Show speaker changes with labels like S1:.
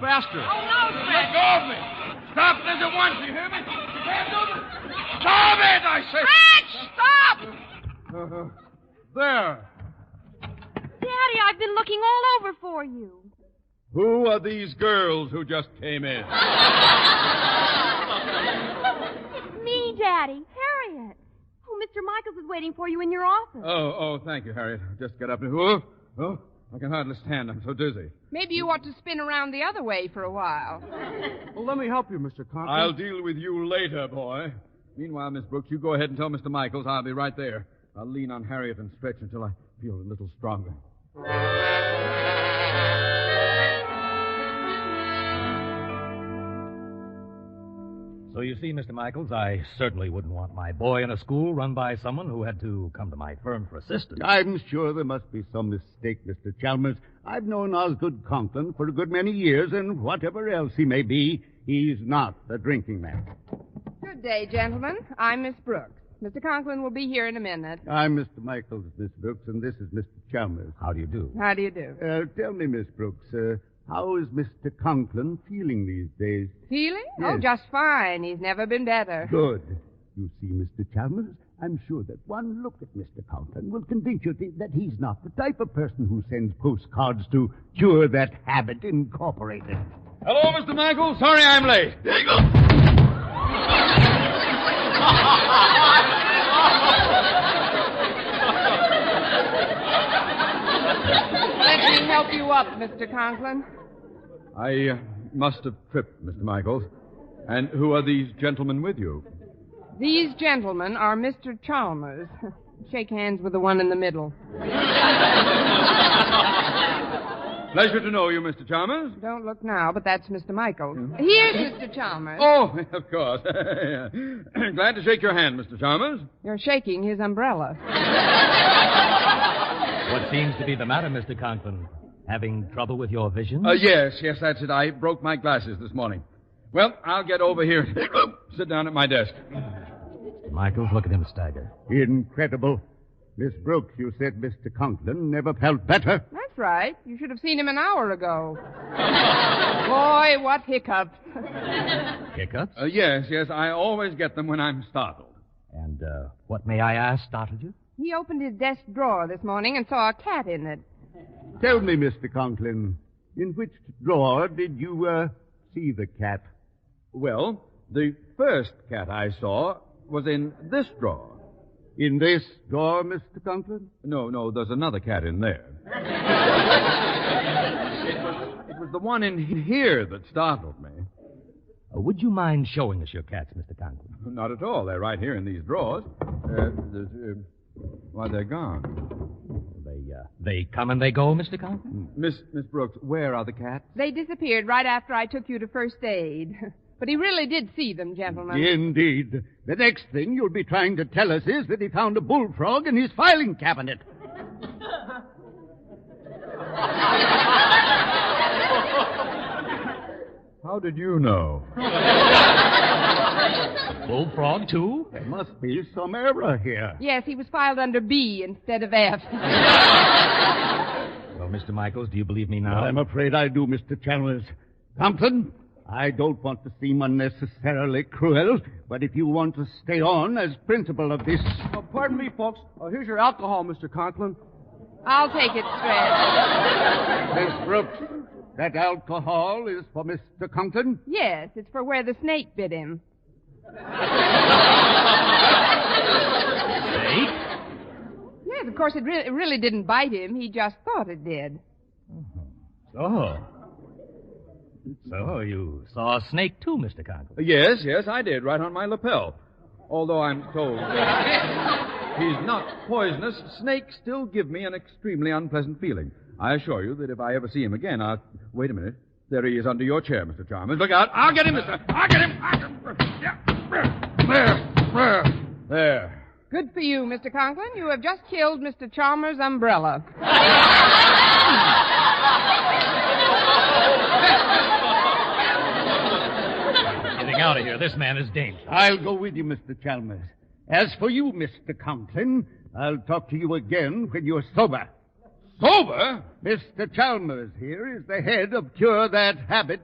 S1: bastard.
S2: Oh, no,
S1: Let
S2: Fred.
S1: go of me. Stop this at once, you hear me? Stand over. Stop it, I say.
S2: Fred, stop!
S1: Uh, there.
S3: Daddy, I've been looking all over for you.
S1: Who are these girls who just came in?
S3: It's me, Daddy. Harriet. Oh, Mr. Michaels is waiting for you in your office.
S1: Oh, oh, thank you, Harriet. Just get up and. Oh, oh, I can hardly stand. I'm so dizzy.
S2: Maybe you ought to spin around the other way for a while.
S4: Well, let me help you, Mr. Conklin.
S1: I'll deal with you later, boy. Meanwhile, Miss Brooks, you go ahead and tell Mr. Michaels I'll be right there. I'll lean on Harriet and stretch until I feel a little stronger.
S5: So you see, Mr. Michaels, I certainly wouldn't want my boy in a school run by someone who had to come to my firm for assistance.
S6: I'm sure there must be some mistake, Mr. Chalmers. I've known Osgood Conklin for a good many years, and whatever else he may be, he's not a drinking man.
S2: Good day, gentlemen. I'm Miss Brooks. Mr. Conklin will be here in a minute.
S6: I'm Mr. Michaels, Miss Brooks, and this is Mr. Chalmers.
S5: How do you do?
S2: How do you do?
S6: Uh, tell me, Miss Brooks, uh, how is Mr. Conklin feeling these days?
S2: Feeling? Oh,
S6: Yes.
S2: just fine. He's never been better.
S6: Good. You see, Mr. Chalmers, I'm sure that one look at Mr. Conklin will convince you th- that he's not the type of person who sends postcards to cure that habit incorporated.
S1: Hello, Mr. Michaels. Sorry I'm late.
S2: Let me help you up, Mr. Conklin.
S1: I uh, must have tripped, Mr. Michaels. And who are these gentlemen with you?
S2: These gentlemen are Mr. Chalmers. Shake hands with the one in the middle.
S1: Pleasure to know you, Mr. Chalmers.
S2: Don't look now, but that's Mr. Michaels. Here's Mr. Chalmers.
S1: Oh, of course. Glad to shake your hand, Mr. Chalmers.
S2: You're shaking his umbrella.
S5: What seems to be the matter, Mr. Conklin? Having trouble with your vision?
S1: Uh, yes, yes, that's it. I broke my glasses this morning. Well, I'll get over here. Sit down at my desk.
S5: Michaels, look at him stagger.
S6: Incredible. Miss Brooks, you said Mr. Conklin never felt better.
S2: That's right. You should have seen him an hour ago. Boy, what hiccups.
S5: Hiccups?
S1: Uh, yes, yes, I always get them when I'm startled.
S5: And uh, what, may I ask, startled you?
S2: He opened his desk drawer this morning and saw a cat in it.
S6: Tell me, Mr. Conklin, in which drawer did you uh, see the cat?
S1: Well, the first cat I saw was in this drawer.
S6: In this drawer, Mr. Conklin?
S1: No, no, there's another cat in there. it, was, it was the one in here that startled me.
S5: Uh, would you mind showing us your cats, Mr. Conklin?
S1: Not at all. They're right here in these drawers. Uh, there's, uh, why, they're gone.
S5: They, uh, they come and they go, Mr. Conklin?
S1: Miss, Miss Brooks, where are the cats?
S2: They disappeared right after I took you to first aid. But he really did see them, gentlemen.
S6: Indeed. The next thing you'll be trying to tell us is that he found a bullfrog in his filing cabinet.
S1: How did you know?
S5: Bullfrog, too?
S6: There must be some error here.
S2: Yes, he was filed under B instead of F.
S5: Well, Mr. Michaels, do you believe me now?
S6: I'm afraid I do, Mr. Chalmers. Conklin, I don't want to seem unnecessarily cruel, but if you want to stay on as principal of this
S4: Oh, pardon me, folks. Oh, here's your alcohol, Mr. Conklin.
S2: I'll take it, Fred.
S6: Miss Brooks, that alcohol is for Mr. Conklin.
S2: Yes, it's for where the snake bit him.
S5: Eight?
S2: Yes, of course, it, re- it really didn't bite him. He just thought it did.
S5: So. So you saw a snake, too, Mr. Conklin?
S1: Yes, yes, I did, right on my lapel. Although I'm told he's not poisonous, snakes still give me an extremely unpleasant feeling. I assure you that if I ever see him again, I'll. Wait a minute. There he is under your chair, Mr. Chalmers. Look out. I'll get him, Mr. I'll get him. I'll get him. Yeah. There. There. There.
S2: Good for you, Mr. Conklin. You have just killed Mr. Chalmers' umbrella.
S5: Getting out of here. This man is dangerous.
S6: I'll go with you, Mr. Chalmers. As for you, Mr. Conklin, I'll talk to you again when you're sober.
S1: Sober?
S6: Mr. Chalmers here is the head of Cure That Habit